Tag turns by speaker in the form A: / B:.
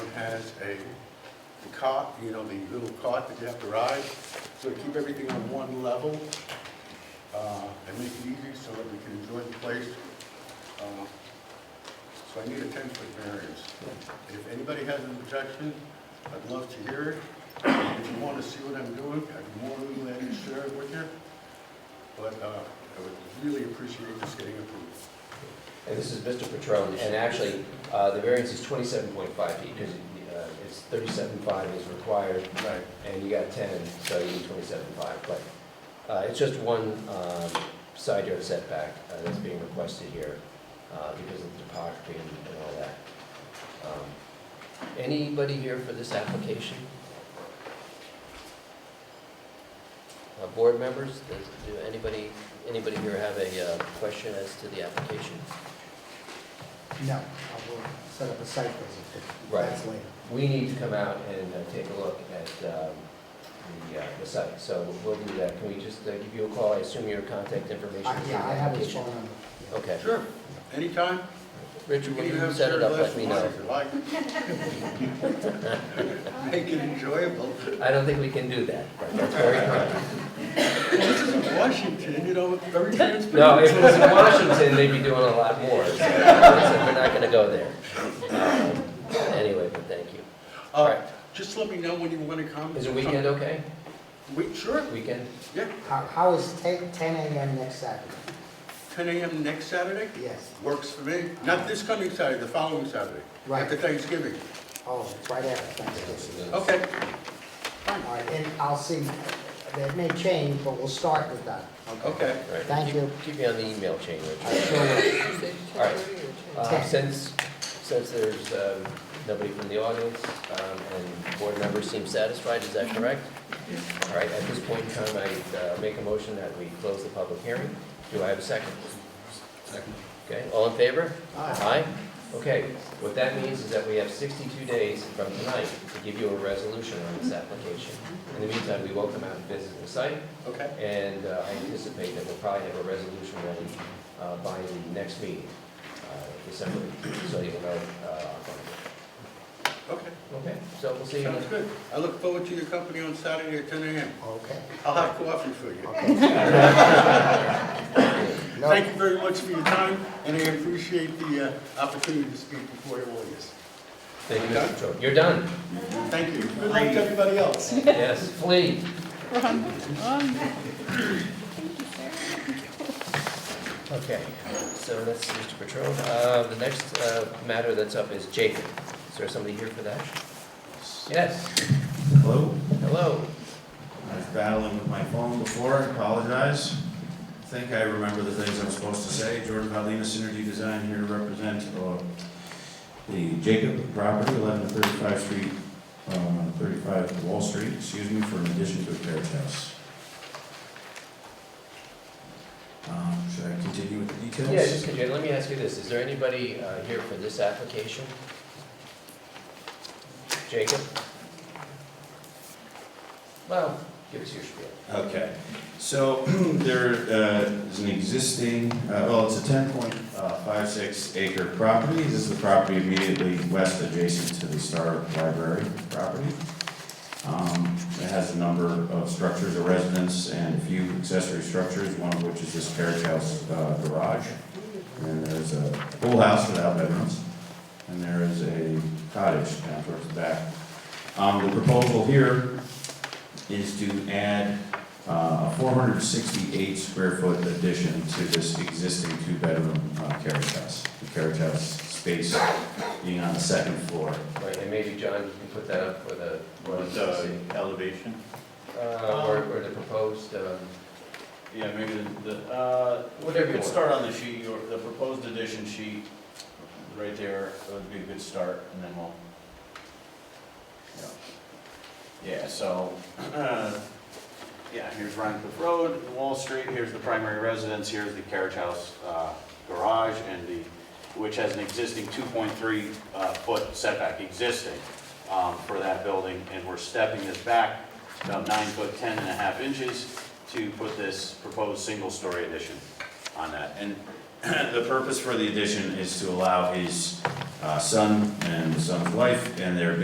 A: has a the cot, you know, the little cot that you have to ride, so to keep everything on one level, uh, and make it easy so that we can enjoy the place. Uh, So I need a ten-foot variance. If anybody has an objection, I'd love to hear it. If you want to see what I'm doing, I'd be more than glad to share it with you. But uh, I would really appreciate this getting approved.
B: And this is Mr. Patron, and actually, uh, the variance is twenty-seven point five feet, because it's thirty-seven five is required,
A: Right.
B: and you got ten, so you need twenty-seven five, but uh, it's just one um, side yard setback uh, that's being requested here uh, because of the topography and and all that. Um, Anybody here for this application? Uh, Board members, does, do anybody, anybody here have a uh, question as to the application?
C: No, I will set up a site visit, but
B: Right.
C: that's later.
B: We need to come out and uh, take a look at um, the, uh, the site, so we'll do that. Can we just uh, give you a call? I assume your contact information
C: I-
B: is in the
C: Uh, Yeah, I have his phone
B: application?
C: number. yeah.
B: Okay.
A: Sure, anytime.
B: Richard,
A: can
B: when
A: even
B: you
A: have
B: set it
A: shared
B: up,
A: glass
B: let
A: of
B: me
A: wine
B: know.
A: if you like. Make it enjoyable.
B: I don't think we can do that. That's very kind.
A: This is in Washington, you know, very transparent.
B: No, if it was in Washington, they'd be doing a lot more, so so we're not gonna go there. Um, Anyway, but thank you.
A: All right, Uh, just let me know when you want to come.
B: Is a weekend okay?
A: We, sure,
B: Weekend?
A: yeah,
C: How, how is ten, ten AM next Saturday?
A: ten AM next Saturday,
C: Yes,
A: works for me. Not this coming Saturday, the following Saturday.
C: Right.
A: After Thanksgiving.
C: oh, it's right after Thanksgiving.
A: Okay,
C: All right, and I'll see, that may change, but we'll start with that.
A: okay.
B: All right.
C: Thank
B: Keep-
C: you.
B: Keep me on the email chain, Richard.
C: I sure will.
B: All right. Uh,
C: Ten.
B: Since, since there's um, nobody from the audience um, and board members seem satisfied, is that correct? All right, at this point in time, I uh, make a motion that we close the public hearing. Do I have a second?
A: Second.
B: Okay, all in favor?
C: Aye.
B: Aye? Okay, what that means is that we have 62 days from tonight to give you a resolution on this application. In the meantime, we will come out and visit the site,
A: Okay,
B: and uh, I anticipate that we'll probably have a resolution ready uh, by the next meeting, uh, December, so you'll know. uh,
A: okay,
B: Okay, so we'll see you.
A: sounds good. I look forward to your company on Saturday at ten AM.
C: Okay.
A: I'll have coffee for you.
C: No,
A: Thank you very much for your time, and I appreciate the uh, opportunity to speak before your lawyers.
B: Thank you, Mr. Cho. You're done.
A: Thank you. Good luck to everybody else.
B: Yes, flee. Okay, so that's Mr. Patron. Uh, The next uh, matter that's up is Jacob. Is there somebody here for that? Yes,
D: Hello,
B: hello.
D: I was battling with my phone before, I apologize. I think I remember the things I'm supposed to say. Jordan Paulina, Synergy Design here to represent uh, the Jacob property, 11 to 35 Street, um, 35 Wall Street, excuse me, for an addition to a carriage house. Um, Should I continue with the details?
B: Yeah, just, could you- let me ask you this, is there anybody uh, here for this application? Jacob? Well, give us your spiel.
D: Okay, so there uh, is an existing, uh, well, it's a ten point uh, five six acre property. This is the property immediately west adjacent to the Star Library property. Um, It has a number of structures, a residence, and a few accessory structures, one of which is this carriage house uh, garage. And there's a pool house without bedrooms, and there is a cottage down towards the back. Um, The proposal here is to add uh, a 468 square foot addition to this existing two-bedroom uh, carriage house. The carriage house space being on the second floor.
B: Right, and maybe John, you can put that up for the.
E: What, uh, elevation?
B: Uh, Or, or the proposed, um,
E: Yeah, maybe the, the, uh,
B: Whatever you
E: could
B: want.
E: start on the sheet, your, the proposed addition sheet, right there, that would be a good start, and then we'll. Yeah. Yeah, so, uh, yeah, here's Rhine Cliff Road, Wall Street, here's the primary residence, here's the carriage house, uh, garage, and the, which has an existing two point three, uh, foot setback existing, um, for that building, and we're stepping this back about nine foot, 10 and a half inches to put this proposed single-story addition on that.
D: And the purpose for the addition is to allow his uh, son and the son's wife and their